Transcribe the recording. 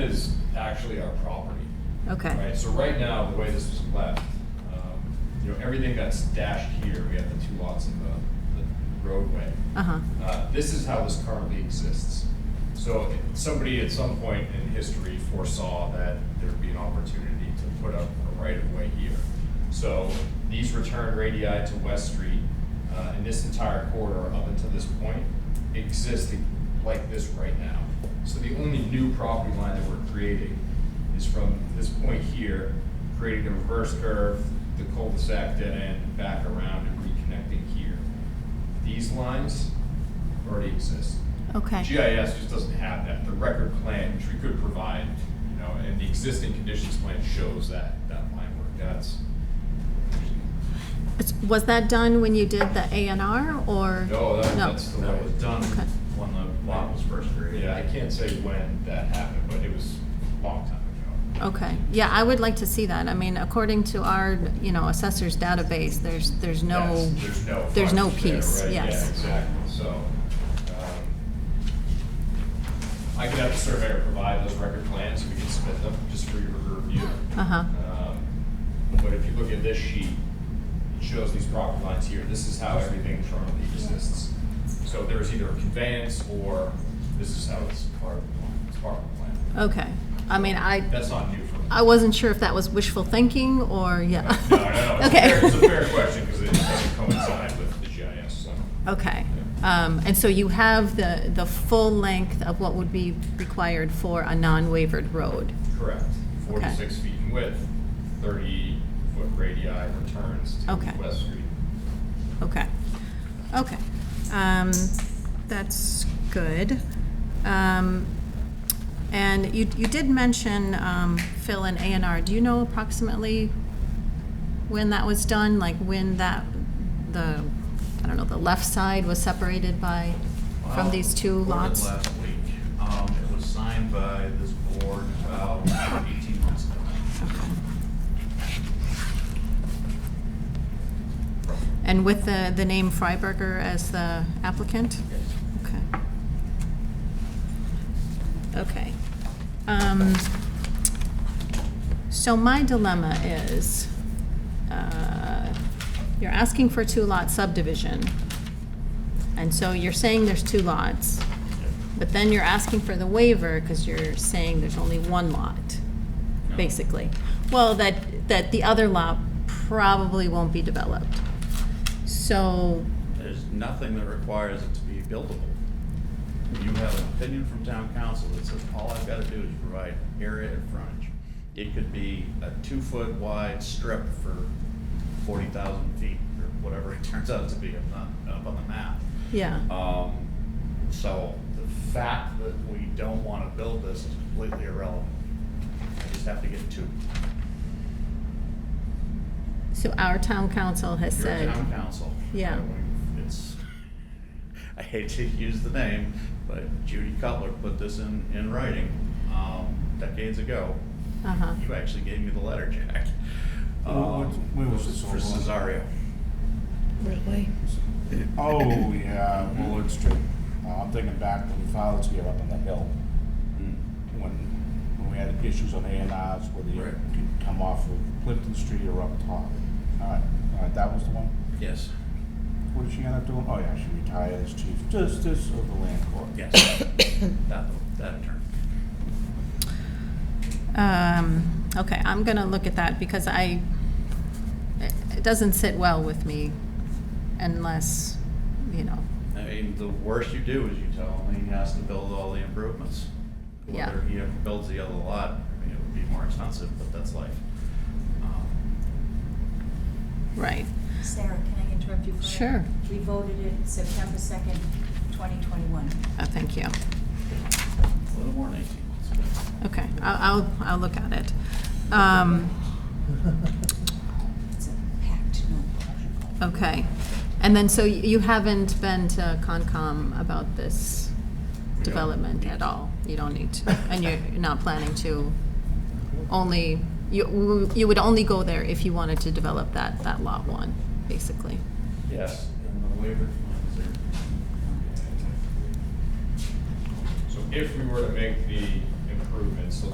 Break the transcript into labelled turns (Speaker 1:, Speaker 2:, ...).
Speaker 1: is actually our property,
Speaker 2: Okay,
Speaker 1: right? So right now, the way this was left, um, you know, everything that's dashed here, we have the two lots in the, the roadway.
Speaker 2: uh-huh,
Speaker 1: Uh, This is how this currently exists. So if somebody at some point in history foresaw that there'd be an opportunity to put up a right-of-way here. So these return radii to West Street, uh, in this entire corridor up until this point, exist like this right now. So the only new property line that we're creating is from this point here, creating a reverse curve, the cul-de-sac dead end, back around and reconnecting here. These lines already exist.
Speaker 2: okay.
Speaker 1: GIS just doesn't have that. The record plan, which we could provide, you know, and the existing conditions plan shows that, that line work. That's,
Speaker 2: It's- Was that done when you did the A and R, or?
Speaker 1: no, that- that's the way.
Speaker 3: That was done
Speaker 2: Okay.
Speaker 3: when the lot was first created.
Speaker 1: Yeah, I can't say when that happened, but it was a long time ago.
Speaker 2: Okay, yeah, I would like to see that. I mean, according to our, you know, assessor's database, there's, there's no,
Speaker 1: Yes, There's no.
Speaker 2: there's no
Speaker 1: frontage there,
Speaker 2: piece,
Speaker 1: right?
Speaker 2: yes.
Speaker 1: Yeah, exactly, so. um, I could have the surveyor provide those record plans, we can submit them just for your review.
Speaker 2: uh-huh,
Speaker 1: Um, But if you look at this sheet, it shows these property lines here, this is how everything currently exists. So there's either a conveyance or this is how it's part of the plan, it's part of the plan.
Speaker 2: okay. I mean, I,
Speaker 1: That's not new for me.
Speaker 2: I wasn't sure if that was wishful thinking, or, yeah.
Speaker 1: No, no, no, it's a
Speaker 2: Okay.
Speaker 1: fair, it's a fair question because it doesn't coincide with the GIS, so.
Speaker 2: Okay, um, and so you have the, the full length of what would be required for a non-wavered road?
Speaker 1: Correct.
Speaker 2: Okay.
Speaker 1: Forty-six feet in width, thirty-foot radii returns to
Speaker 2: Okay.
Speaker 1: West Street.
Speaker 2: Okay, okay. Um, That's good. Um, And you, you did mention um, Phil and A and R. Do you know approximately when that was done? Like when that, the, I don't know, the left side was separated by, from
Speaker 3: Well,
Speaker 2: these two
Speaker 3: ordered
Speaker 2: lots?
Speaker 3: Last week. Um, it was signed by this board about eighteen months ago.
Speaker 2: And with the, the name Freiberger as the applicant?
Speaker 3: Yes.
Speaker 2: Okay. Okay. Um, So my dilemma is, uh, you're asking for a two-lot subdivision, and so you're saying there's two lots, but then you're asking for the waiver because you're saying there's only one lot,
Speaker 3: No.
Speaker 2: basically. Well, that, that the other lot probably won't be developed. So,
Speaker 3: There's nothing that requires it to be buildable. You have an opinion from town council that says, all I've gotta do is provide area and frontage. It could be a two-foot wide strip for forty thousand feet, or whatever it turns out to be, I'm not up on the map.
Speaker 2: yeah.
Speaker 3: Um, so the fact that we don't wanna build this is completely irrelevant. I just have to get two.
Speaker 2: So our town council has
Speaker 3: You're a
Speaker 2: said,
Speaker 3: town council.
Speaker 2: Yeah.
Speaker 3: And we- It's, I hate to use the name, but Judy Cutler put this in, in writing, um, decades ago.
Speaker 2: uh-huh,
Speaker 3: You actually gave me the letter, Jack.
Speaker 4: Wh- what-
Speaker 3: Um,
Speaker 4: where Uh, was this
Speaker 3: For
Speaker 4: all going?
Speaker 3: Cesario.
Speaker 5: Ridley.
Speaker 4: Oh, yeah, Willard Street. Uh, I'm thinking back to the fathers here up on the hill, when, when we had issues on A and R's, whether you
Speaker 3: Right.
Speaker 4: could come off of Clifton Street or up top. All right, all right, that was the one.
Speaker 3: Yes.
Speaker 4: What did she end up doing? Oh, yeah, she retired as chief justice of the land court.
Speaker 3: Yes. That, that term.
Speaker 2: um, okay, I'm gonna look at that because I, it it doesn't sit well with me unless, you know,
Speaker 3: I mean, the worst you do is you tell him he has to build all the improvements.
Speaker 2: Yeah.
Speaker 3: Whether he ever builds the other lot, I mean, it would be more expensive, but that's life. Um,
Speaker 2: right.
Speaker 5: Sarah, can I interrupt you for a minute?
Speaker 2: Sure.
Speaker 5: We voted it September 2nd, 2021.
Speaker 2: Uh, thank you.
Speaker 3: A little more than eighteen months ago.
Speaker 2: Okay, I'll, I'll, I'll look at it. Um,
Speaker 5: It's a packed notebook.
Speaker 2: okay. And then, so y- you haven't been to Concom about this
Speaker 3: don't
Speaker 2: development
Speaker 3: need
Speaker 2: at
Speaker 3: to.
Speaker 2: all? You don't need to, and you're not planning to only, you, you would only go there if you wanted to develop that, that lot one, basically.
Speaker 3: Yes, and the waiver funds are.
Speaker 1: So if we were to make the improvements, the